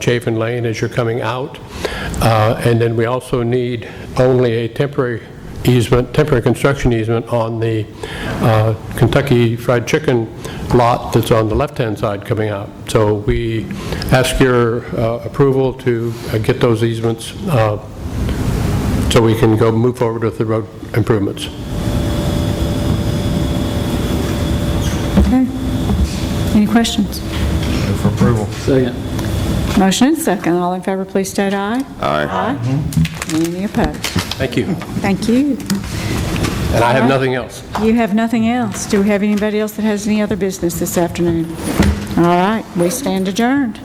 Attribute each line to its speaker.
Speaker 1: Chafin Lane as you're coming out. Uh, And then we also need only a temporary easement, temporary construction easement on the uh, Kentucky Fried Chicken lot that's on the left-hand side coming out. So we ask your uh, approval to uh, get those easements uh, so we can go move forward with the road improvements.
Speaker 2: Okay. Any questions?
Speaker 3: Move for approval.
Speaker 4: Second.
Speaker 2: Motion and second. All in favor, please state aye. Aye. Any opposed?
Speaker 1: Thank you.
Speaker 2: Thank you.
Speaker 1: And I have nothing else.
Speaker 2: You have nothing else. Do we have anybody else that has any other business this afternoon? All right, we stand adjourned.